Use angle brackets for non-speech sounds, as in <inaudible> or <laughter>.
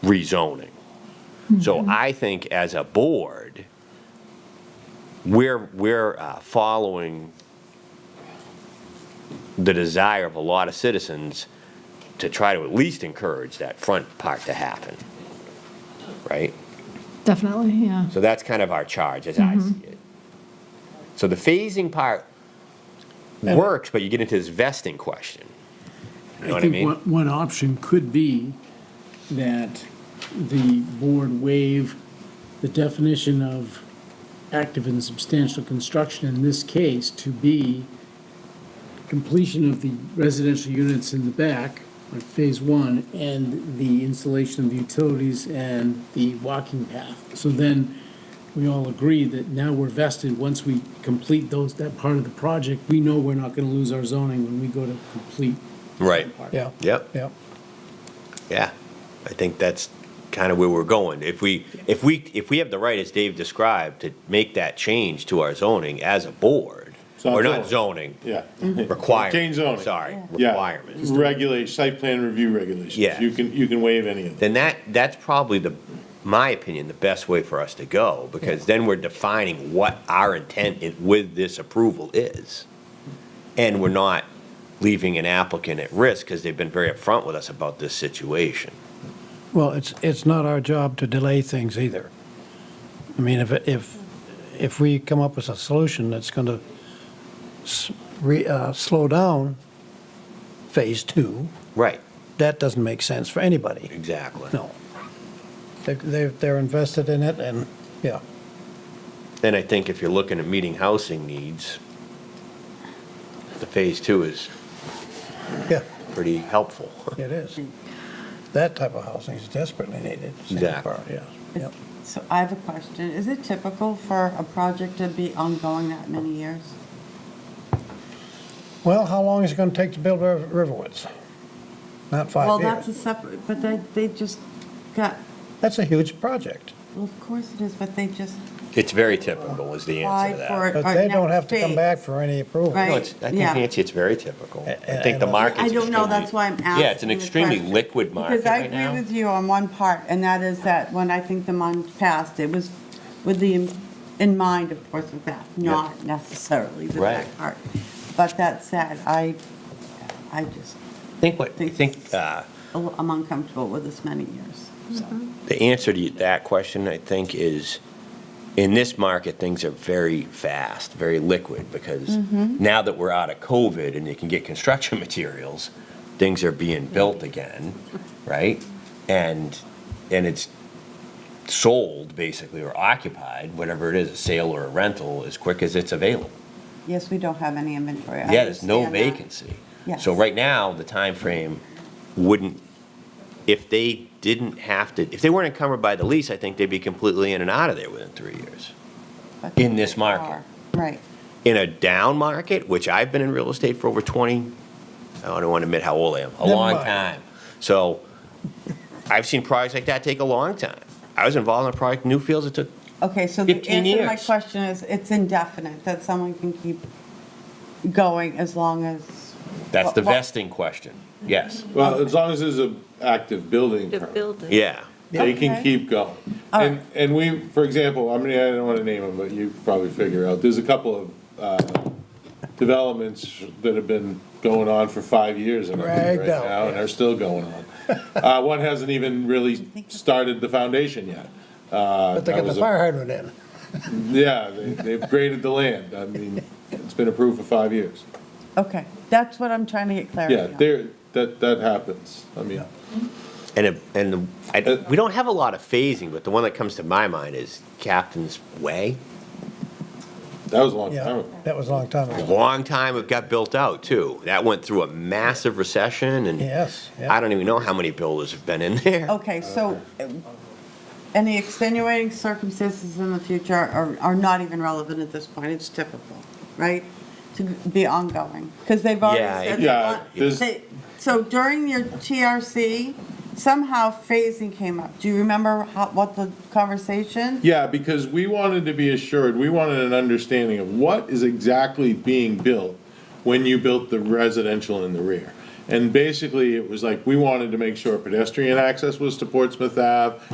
rezoning. So I think as a board, we're, we're uh, following the desire of a lot of citizens to try to at least encourage that front part to happen, right? Definitely, yeah. So that's kind of our charge, as I see it. So the phasing part works, but you get into this vesting question. You know what I think mean? one- One option could be that the board waive the definition of active and substantial construction in this case to be completion of the residential units in the back, like phase one, and the installation of utilities and the walking path. So then we all agree that now we're vested, once we complete those, that part of the project, we know we're not gonna lose our zoning when we go to complete Right. Yeah, Yep. yeah. Yeah, I think that's kind of where we're going. If we, if we, if we have the right, as Dave described, to make that change to our zoning as a board, It's not or not zoning, Yeah. requirement. Change zoning. Sorry, <laughs> Yeah. requirements. Regulate, site plan review regulations. Yeah. You can, you can waive any of them. Then that, that's probably the, my opinion, the best way for us to go, because then we're defining what our intent i- with this approval is. And we're not leaving an applicant at risk, because they've been very upfront with us about this situation. Well, it's, it's not our job to delay things either. I mean, if, if, if we come up with a solution that's going to re, uh, slow down phase two, Right, that doesn't make sense for anybody. exactly. No. They, they- they're invested in it and, yeah. Then I think if you're looking at meeting housing needs, the phase two is Yeah, pretty helpful. <laughs> it is. That type of housing is desperately needed. Exactly. Yeah, yeah. So I have a question. Is it typical for a project to be ongoing that many years? Well, how long is it going to take to build Riv- Riverwoods? Not Well, five that's a years. separate, but they, they just got, That's a huge project. well, of course it is, but they just It's very typical is the answer to applied for that. it. But or they now don't have to come phase. back for any approval. No, Right. it's, I think Yeah. Nancy, it's very typical. A- I a- think the and- market's I don't know, that's why I'm extremely- asking. Yeah, it's an the extremely question. liquid market right Because I now. agree with you on one part, and that is that when I think the month passed, it was with the, in mind, of course, with that, not necessarily the Right. back part. But that said, I, I just, I think what, I think uh, I'm uncomfortable with this many years, so. the answer to that question, I think, is in this market, things are very fast, very liquid, because now that we're out of COVID and you can get construction <laughs> materials, things are being built again, right? And, and it's sold basically or occupied, whatever it is, a sale or a rental, as quick as it's available. Yes, we don't have any inventory. I Yeah, there's no understand that. vacancy. Yes. So right now, the time frame wouldn't, if they didn't have to, if they weren't encumbered by the lease, I think they'd be completely in and out of there within three years. But in this they market. are. Right. In a down market, which I've been in real estate for over 20, I don't want to admit how old I am, a Never long mind. time. So I've seen projects like that take a long time. I was involved in a project, in Newfields, it took, Okay, so the 15 answer to my years. question is, it's indefinite, that someone can keep going as long as. that's the Well, Mm-hmm. vesting question. Yes, Well, as long as there's a active building The permit, building. yeah. they can Okay. keep going. And, and we, for example, I mean, I don't want to name them, but you probably figure out, there's a couple of, uh, developments that have been going on for five years in our Dragged right out, now and are still going on. Uh, one hasn't even really started the foundation yet. Uh, But they that got the was a- fire hydrant in. Yeah, they, they've graded the land. I mean, it's been approved for five years. Okay, that's what I'm trying to get clarity Yeah, on. there, that, that happens. I mean, And, it- and the- I, we don't have a lot of phasing, but the one that comes to my mind is Captain's Way. that was a long time Yeah, ago. that was a long time A ago. Long time it got built out too. That went through a massive recession and Yes, yeah. I don't even know how many builders have been in there. Okay, so uh, any extenuating circumstances in the future are, are not even relevant at this point, it's typical, right? To be ongoing, because they've already Yeah, said. it- they Yeah, want- there's- they- So during your TRC, somehow phasing came up. Do you remember how, what the conversation? Yeah, because we wanted to be assured, we wanted an understanding of what is exactly being built when you built the residential in the rear. And basically, it was like, we wanted to make sure pedestrian access was to Portsmouth Ave,